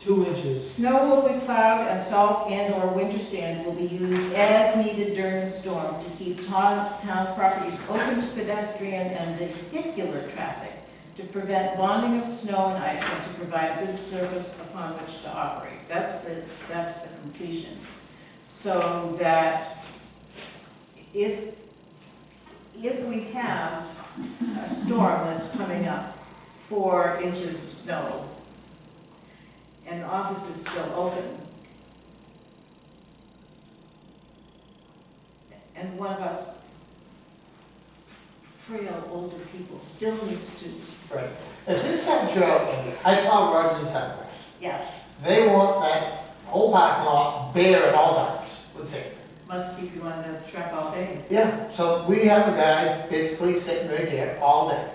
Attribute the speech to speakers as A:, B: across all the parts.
A: two inches.
B: Snow will be plowed, and salt and/or winter sand will be used as needed during the storm to keep town, town properties open to pedestrian and vehicular traffic, to prevent bonding of snow and ice, and to provide good service upon which to operate. That's the, that's the completion. So that if, if we have a storm that's coming up, four inches of snow, and the office is still open. And one of us frail older people still needs to,
C: Right. If this had drought, in it, I plow Rogers Highway.
B: yeah,
C: They want that whole parking lot bare at all times with sand.
B: must keep you on the track all day.
C: Yeah, so we have a guy basically sitting right there all day,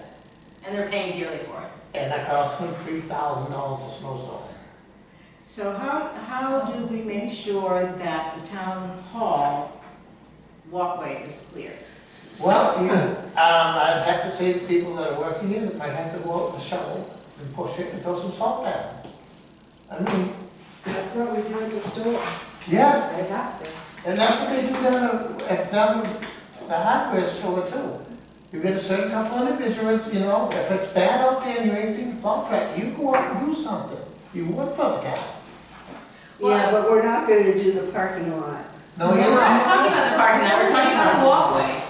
D: And they're paying dearly for it.
C: and that costs him three thousand dollars a snowstorm.
B: So how, how do we make sure that the town hall walkway is clear?
C: Well, you, um, I'd have to say to people that are working here, that might have to go out with a shovel and push it and throw some salt down. I mean,
E: That's what we do at the store.
C: yeah,
E: I have to.
C: And that's what they do down at, at down the hardware store too. You get a certain couple of individuals, you know, if it's bad out there and you ain't seen the plow track, you go out and do something. You work for the guy.
E: Yeah, but we're not gonna do the parking lot.
C: No,
D: Oh, We're
C: you're
D: not
C: not.
D: talking about the parking lot, we're talking about the walkway.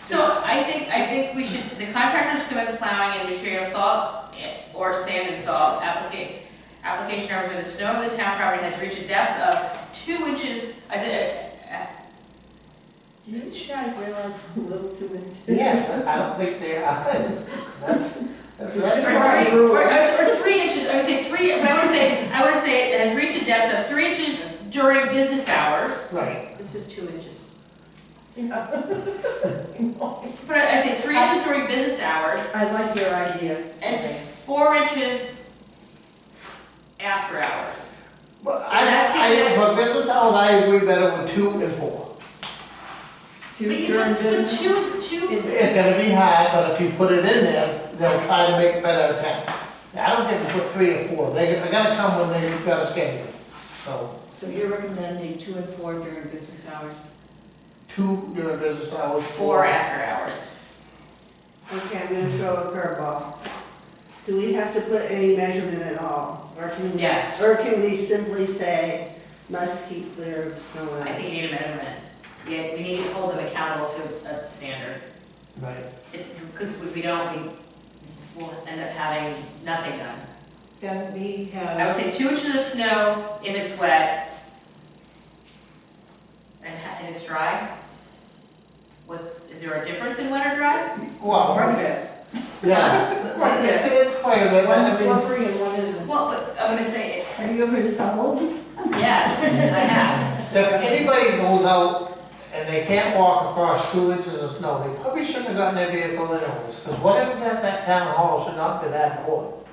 D: So I think, I think we should, the contractor should commit to plowing and material salt eh, or sand and salt applica- application hours where the snow of the town property has reached a depth of two inches, I did, eh,
E: Do you guys realize how little too much?
C: Yes, I don't think they are. That's, that's, that's
D: Or
C: right.
D: three, or, or three inches, I would say three, but I would say, I would say it has reached a depth of three inches during business hours.
C: Right,
B: This is two inches.
D: But I I say three inches during business hours
E: I like your idea.
D: and four inches after hours.
C: but
D: That's
C: I, I,
D: it.
C: but business hours, I agree better with two and four.
E: Two
D: But you
E: during
D: can, but
E: business?
D: two, two,
C: It's, it's gonna be high, but if you put it in there, they'll try to make better attempts. I don't think it's put three or four, they, they're gonna come when they've got a schedule, so.
B: So you're recommending two and four during business hours?
C: two during business hours.
D: four after hours.
E: Okay, I'm gonna throw a curveball. Do we have to put any measurement at all? Or can we?
D: Yes.
E: Or can we simply say, must keep clear of snow and
D: I think
E: ice?
D: you need a measurement. Yeah, we need to hold them accountable to a standard.
C: Right.
D: It's, because if we don't, we will end up having nothing done.
B: Then we have.
D: I would say two inches of snow if it's wet and, ha- and it's dry. What's, is there a difference in wet or dry?
C: Well,
E: bit.
C: yeah,
E: Right, yeah.
C: it's, it's quite a bit, I mean,
E: slippery and one isn't.
D: Well, but I'm gonna say, it-
E: Are you ever in trouble?
D: yes, I have.
C: if anybody goes out and they can't walk across two inches of snow, they probably shouldn't have gotten their vehicle anyways, because whatever's at that town hall should not be that important.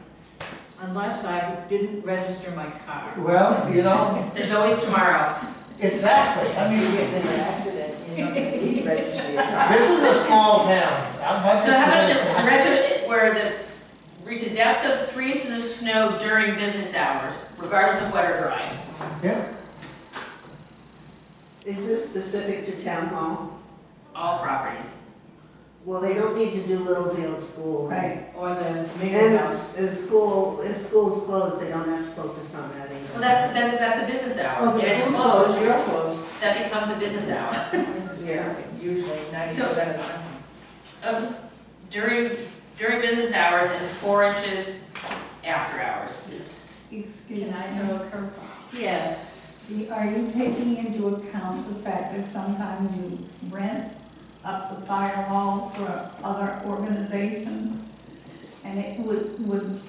B: Unless I didn't register my car.
C: Well, you know,
D: There's always tomorrow.
C: exactly, I mean,
E: an accident, you know, you register your car.
C: this is a small town, I'm not
D: So how about
C: saying
D: the
C: this.
D: regiment where the, reach a depth of three inches of snow during business hours, regardless of wet or dry?
E: Is this specific to town hall?
D: All properties.
E: Well, they don't need to do Littlefield School.
B: Or the
E: And
B: main
E: it's,
B: house.
E: if school, if school's closed, they don't have to focus on that either.
D: Well, that's, that's, that's a business hour.
B: Oh,
D: If it's Oh, closed,
E: you're closed.
D: that becomes a business hour.
E: Yeah.
B: Usually ninety
D: percent
B: of the time.
D: Um, during, during business hours and four inches after hours.
F: Excuse me, I know a curveball.
B: Yes,
F: The- Are you taking into account the fact that sometimes you rent up the firewall for other organizations? And it would, would,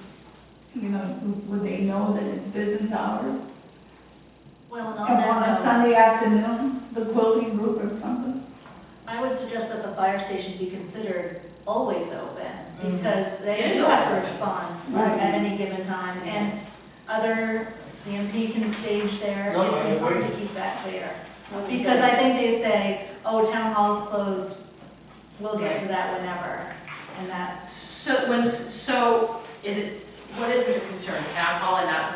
F: you know, would they know that it's business hours?
G: Well, and on
F: And on a
G: that note,
F: Sunday afternoon, the quilting group or something?
G: I would suggest that the fire station be considered always open,
B: Mhm.
G: because they
D: It is
G: do have to
D: always
G: respond
E: Right.
G: at any given time, and other, CMP can stage there,
C: No, I
G: it's important to
C: agree.
G: keep that clear. Because I think they say, oh, town hall's closed, we'll get to that whenever, and that's
D: So, when, so, is it, what is the concern, town hall and not the